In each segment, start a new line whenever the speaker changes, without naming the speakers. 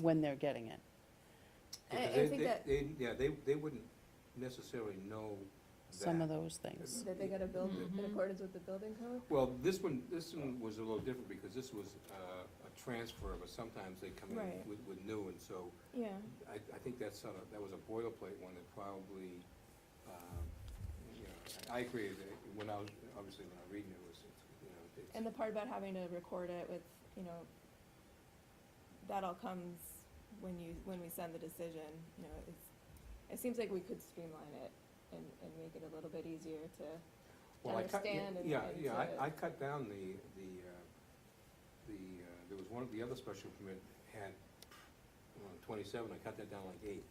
when they're getting it.
I-
Because
I
they-
think
they-
that-
they- Yeah, they, they wouldn't necessarily know that.
Some of those things.
That they gotta build in
Mhm.
accordance with the building code?
Well, this one, this one was a little different because this was uh, a transfer, but sometimes they come in
Right.
with, with new, and so
Yeah.
I, I think that's sort of, that was a boilerplate one that probably, um, you know, I I agree that it- when I was, obviously when I was reading it, it was, you know, it's.
And the part about having to record it with, you know, that all comes when you, when we send the decision, you know, it's, it seems like we could streamline it and, and make it a little bit easier to,
Well, I cut-
understand and-
Yeah,
and
yeah,
to-
I, I cut down the, the, uh, the, uh, there was one, the other special permit had, well, twenty-seven, I cut that down like eight,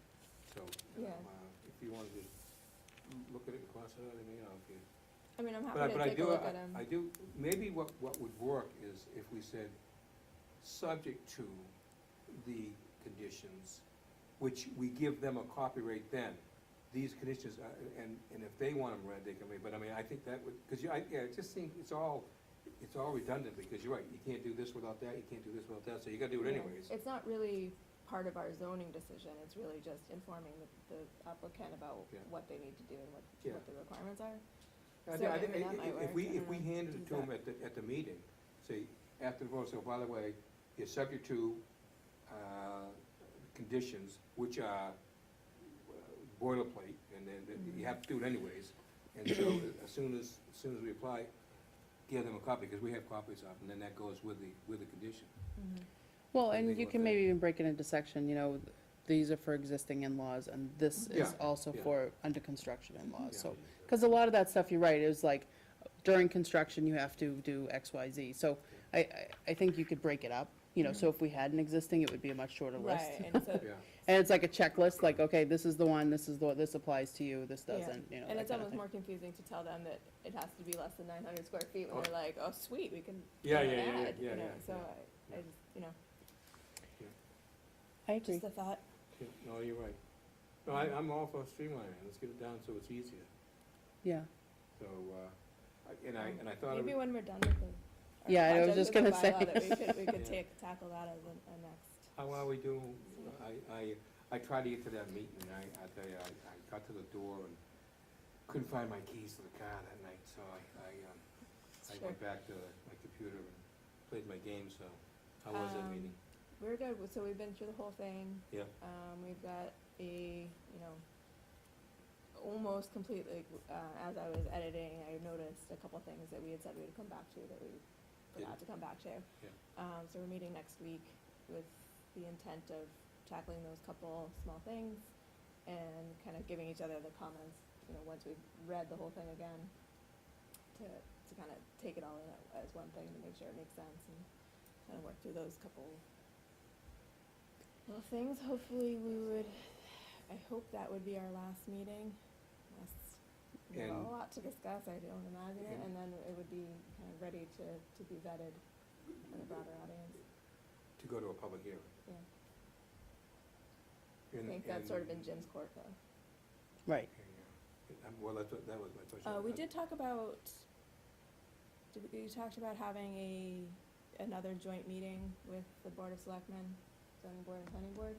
so. you know,
Yeah.
uh, If you wanted to look at it and cross it out, I mean, you know, if you.
I mean, I'm
But I,
happy
but
to
I
take a
do,
look at
I- I
them.
do, maybe what, what would work is if we said, subject to the conditions, which we give them a copy right then, these conditions, uh, and, and if they want them read, they can read, but I mean, I think that would, because you, I, yeah, it just seems, it's all, it's all redundant, because you're right, you can't do this without that, you can't do this without that, so you gotta do it
Yeah.
anyways.
It's not really part of our zoning decision, it's really just informing the, the applicant about
Yeah.
what they need to do and what,
Yeah.
what the requirements are.
I
So,
thi- I
I
thi-
mean, that
i-
might
i- If we,
work, Uh-huh. I
if we
don't know,
handed it
do
to them
that.
at the, at the meeting, say, after the vote, so by the way, you're subject to, uh, conditions which are uh, boilerplate, and then, that you have to do it anyways. And
Mm-hmm.
so, uh, as soon as, as soon as we apply, give them a copy, because we have copies of, it, and then that goes with the, with the condition.
Mm-hmm.
Well,
I
and
think
you
what
can
they-
maybe even break it into section, you know, these are for existing in-laws and this is
Yeah,
also
yeah.
for under construction
Oh,
in-laws,
Yeah.
so. Cause a lot of that stuff, you're right, is like during construction, you have to do X, Y, Z. So I, I, I think you could break it up, you know, so if we had an existing, it would be a much shorter list.
Right, and so,
Yeah,
And it's like a checklist, like, okay, this is the one, this is the, this applies to you, this
Yeah.
doesn't, you know,
And
that
it's
kind of
almost
thing.
more confusing to tell them that it has to be less than nine hundred square feet when
Oh.
they're like, oh, sweet, we can.
Yeah,
add
yeah, yeah,
an
yeah,
ad," you
yeah,
know,
yeah,
So
yeah,
I, I
yeah.
just, you know,
I
just
agree.
a thought.
yeah, no, you're right. No, I, I'm all for streamlining, let's get it down so it's easier,
Yeah,
so, uh, I- and I, and I thought. it
Um, Maybe
would-
when we're done with the. our
Yeah, I was
project
just
with the
gonna say.
bylaw, That we could, we could
Yeah.
take, tackle that as a, a next.
How are we doing? I, I, I tried to get to that meeting, and I, I tell you, I, I got to the door and couldn't find my keys to the car that night, so I, I, um, I
Sure.
went back to my computer and played my game, so how was that
Um,
meeting?
We're good, so we've been through the whole thing.
Yeah.
Um, we've got a, you know, almost complete, like, uh, as I was editing, I noticed a couple things that we had said we would come back to that we forgot to come back to.
Yeah.
Um, so we're meeting next week with the intent of tackling those couple small things and kind of giving each other the comments, you know, once we've read the whole thing again, to, to kind of take it all in as one thing to make sure it makes sense and kind of work through those couple little things. Hopefully we would, I hope that would be our last meeting, unless we have
And- Mm-hmm.
a lot to discuss, I don't imagine it,
And-
and then it would be kind of ready to, to be vetted in a broader audience.
To go to a public hearing?
Yeah. I
And-
think that's sort of in
and-
Jim's court though.
right.
Yeah. Um, Well, that's, what- that was my question.
Uh, we did talk about, did, we you talked about having a, another joint meeting with the Board of Selectmen, zoning board and planning board.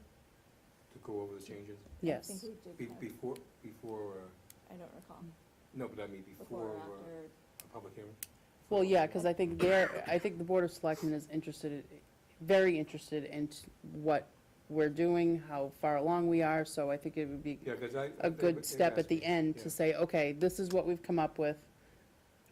To go over the changes,
Yes.
I think we
be,
did, have-
before, before,
I
uh,
don't recall,
no, but I mean,
before or
before, uh,
after,
a public hearing?
Well, yeah,
Before-
because I think they're, I think the Board of Selectmen is interested, very interested in t- what we're doing, how far along we are, so I think it would be
Yeah, 'cause I.
a
they- they
good step at
asked
the
me,
end
yeah.
to say, okay, this is what we've come up with.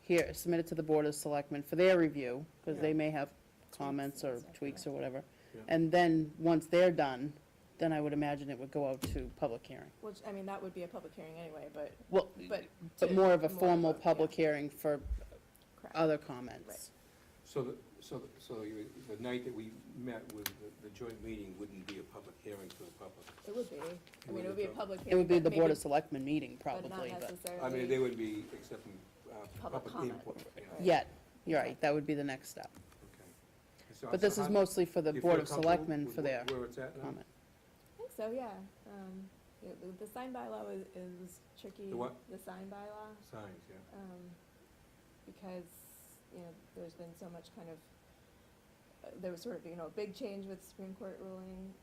Here, submit it to the Board of Selectmen for their review, because they
Yeah.
may have
and
comments or
stuff.
tweaks or whatever.
Yeah.
And then, once they're done, then I would imagine it would go out to public hearing.
Which, I mean, that would be a public hearing anyway, but,
Well,
but.
but
to-
more of a formal
yeah,
public hearing for
correct.
other comments.
So, the- so, the- so you- the night that we met with the- the joint meeting wouldn't be a public hearing for the public?
It would be, I mean, it would be a public hearing.
It would be
but
the Board
maybe-
of Selectmen meeting,
but
probably,
not
but.
necessarily.
I mean, they would be accepting, uh,
Public
public
comment.
input. you know.
Yet, you're right, that would be the next step.
Okay. So-
But
so
this is
how-
mostly for the
you
Board
feel
of
comfortable
Selectmen
with
for
wh-
their
Where it's at now?
comment.
I think so, yeah, um, yeah, the, the sign bylaw is, is tricky.
The what?
The sign bylaw.
Signs, yeah.
um, because, you know, there's been so much kind of, uh, there was sort of, you know, a big change with Supreme Court ruling